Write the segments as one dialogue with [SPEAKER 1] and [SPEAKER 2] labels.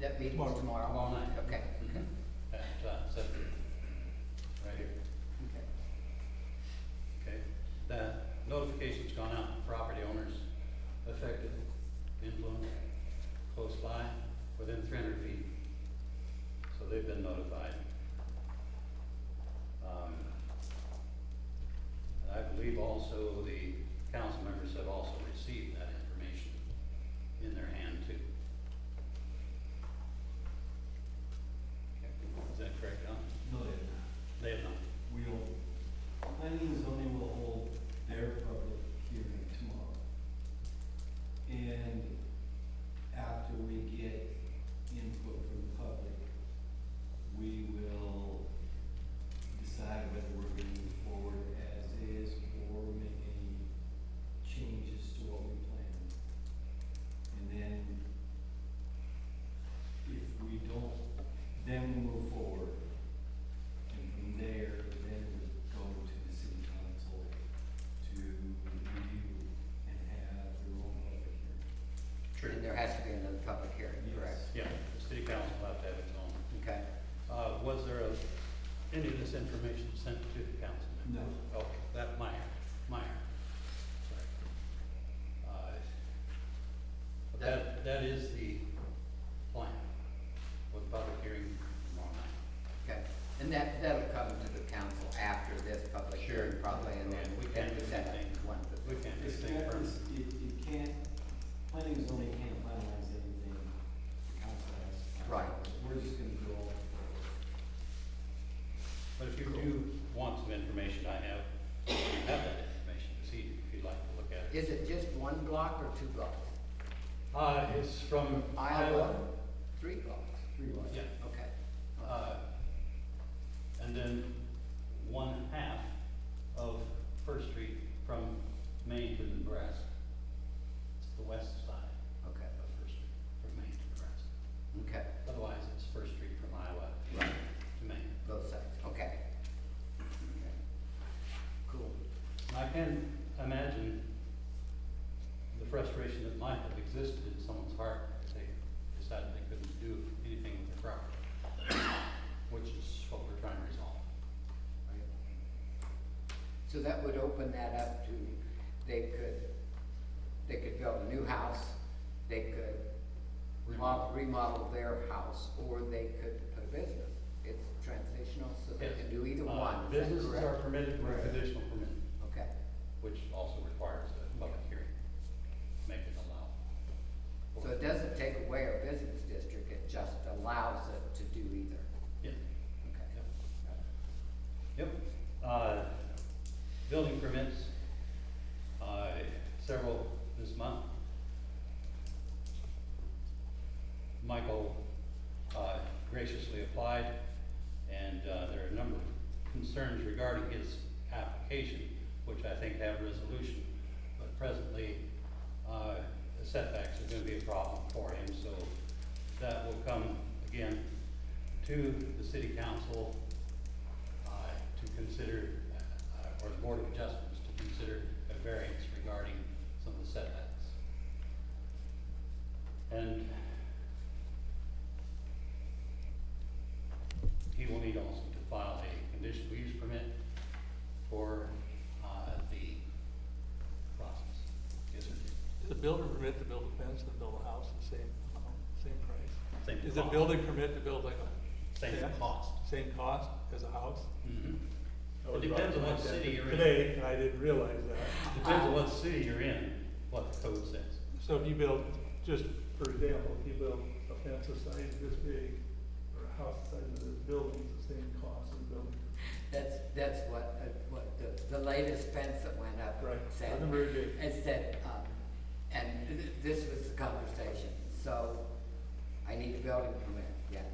[SPEAKER 1] That meeting's
[SPEAKER 2] Tomorrow.
[SPEAKER 1] tomorrow, all night, okay, okay,
[SPEAKER 3] At, Mm-hmm. uh, seven, right here,
[SPEAKER 1] okay.
[SPEAKER 3] okay? The notification's gone out to property owners affected, influenced, close by, within three hundred feet. So they've been notified. Um, And I believe also the council members have also received that information in their hand too. Okay, Is that correct, John?
[SPEAKER 4] No, they have not.
[SPEAKER 3] They have not.
[SPEAKER 4] We don't, planning and zoning will hold their public hearing tomorrow. And after we get input from the public, we will decide whether we're gonna move forward as is or make any changes to what we planned. And then if we don't, then we move forward. And from there, then it would go to the city council to review and have their own public hearing.
[SPEAKER 3] True.
[SPEAKER 1] And there has to be another public hearing, correct?
[SPEAKER 4] Yes.
[SPEAKER 3] Yeah, the city council will have to have its own.
[SPEAKER 1] Okay,
[SPEAKER 3] Uh, was there a, any of this information sent to the council?
[SPEAKER 4] No,
[SPEAKER 3] Oh, that Meyer, Meyer, sorry. Uh, but That, that is the plan with public hearing tomorrow night.
[SPEAKER 1] okay. And that, that'll come to the council after this public
[SPEAKER 3] Sure.
[SPEAKER 1] hearing probably, and then
[SPEAKER 3] And
[SPEAKER 1] we
[SPEAKER 3] we
[SPEAKER 1] can
[SPEAKER 3] can't do
[SPEAKER 1] set
[SPEAKER 3] anything.
[SPEAKER 1] one.
[SPEAKER 3] We can't do
[SPEAKER 4] it's
[SPEAKER 3] anything
[SPEAKER 4] not,
[SPEAKER 3] permanent.
[SPEAKER 4] it's, it, it can't, planning and zoning can't finalize anything, the council has. to finalize.
[SPEAKER 1] Right.
[SPEAKER 4] We're just gonna go all forward.
[SPEAKER 3] But if you do want some information, I have, I have that information this evening, if you'd like to look at it.
[SPEAKER 1] Is it just one block or two blocks?
[SPEAKER 3] Uh, it's from
[SPEAKER 1] Iowa, three blocks,
[SPEAKER 4] Three lots.
[SPEAKER 3] Yeah,
[SPEAKER 1] okay.
[SPEAKER 3] Uh, And then one half of First Street from Main to Nebraska. It's the west side
[SPEAKER 1] Okay,
[SPEAKER 3] of First Street, from Main to Nebraska.
[SPEAKER 1] okay,
[SPEAKER 3] Otherwise, it's First Street from Iowa
[SPEAKER 1] right,
[SPEAKER 3] to Maine.
[SPEAKER 1] both sides, okay. Okay. Cool,
[SPEAKER 3] And I can imagine the frustration that might have existed in someone's heart if they decided they couldn't do anything with their property, which is what we're trying to resolve.
[SPEAKER 1] right. So that would open that up to, they could, they could build a new house, they could mo- remodel their house, or they could put a business. It's transitional, so they
[SPEAKER 3] Yes.
[SPEAKER 1] can do either
[SPEAKER 3] Uh,
[SPEAKER 1] one, is that
[SPEAKER 3] Businesses are
[SPEAKER 1] correct?
[SPEAKER 3] permitted with
[SPEAKER 4] Right.
[SPEAKER 3] conditional permit,
[SPEAKER 1] Okay,
[SPEAKER 3] which also requires a public hearing, make it allow.
[SPEAKER 1] so it doesn't take away our business district, it just allows it to do either,
[SPEAKER 3] Yeah,
[SPEAKER 1] okay?
[SPEAKER 3] yep. Yep, uh, building permits, uh, several this month. Michael, uh, graciously applied, and, uh, there are a number of concerns regarding his application, which I think have resolution, but presently, uh, the setbacks are gonna be a problem for him, so that will come again to the city council, uh, to consider, uh, or the board of adjustments to consider a variance regarding some of the setbacks. And he will need also to file a conditional use permit for, uh, the process. Yes, sir.
[SPEAKER 5] Is a builder permit to build a fence and build a house the same, amount, same price?
[SPEAKER 3] Same
[SPEAKER 5] Is a
[SPEAKER 3] cost.
[SPEAKER 5] building permit to build like a?
[SPEAKER 3] Same
[SPEAKER 5] fence?
[SPEAKER 3] cost.
[SPEAKER 5] Same cost as a house? Mm-hmm.
[SPEAKER 3] Mhm.
[SPEAKER 5] I
[SPEAKER 3] It
[SPEAKER 5] was
[SPEAKER 3] depends on
[SPEAKER 5] about
[SPEAKER 3] what
[SPEAKER 5] to look at
[SPEAKER 3] city
[SPEAKER 5] it
[SPEAKER 3] you're in.
[SPEAKER 5] Today, and I didn't realize that.
[SPEAKER 3] Depends on what city you're in, what the code says.
[SPEAKER 5] So if you build, just for example, if you build a fence the size of this big, or a house the size of this building, it's the same cost as building.
[SPEAKER 1] That's, that's what, uh, what, the, the latest fence that went up
[SPEAKER 5] Right,
[SPEAKER 1] said.
[SPEAKER 5] I remember it did.
[SPEAKER 1] It said, um, and th- this was the conversation, so I need a building permit, yes.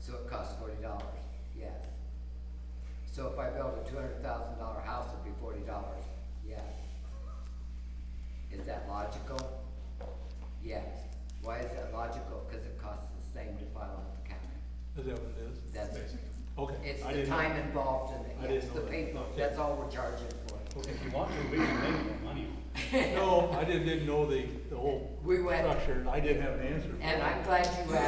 [SPEAKER 1] So it costs forty dollars, yes. So if I build a two hundred thousand dollar house, it'd be forty dollars, yes. Is that logical? Yes. Why is that logical? Cause it costs the same to file with the county.
[SPEAKER 5] Is that what it is?
[SPEAKER 1] That's-
[SPEAKER 5] Basically. Okay.
[SPEAKER 1] It's
[SPEAKER 5] I
[SPEAKER 1] the
[SPEAKER 5] didn't know.
[SPEAKER 1] time involved and
[SPEAKER 5] I
[SPEAKER 1] the, yes,
[SPEAKER 5] didn't
[SPEAKER 1] the
[SPEAKER 5] know that.
[SPEAKER 1] paper,
[SPEAKER 5] Okay.
[SPEAKER 1] that's all we're charging for.
[SPEAKER 3] If you want to, we can make more money on it.
[SPEAKER 5] No, I didn't, didn't know the, the whole
[SPEAKER 1] We went-
[SPEAKER 5] structure, and I didn't have an answer for it.
[SPEAKER 1] And I'm glad you asked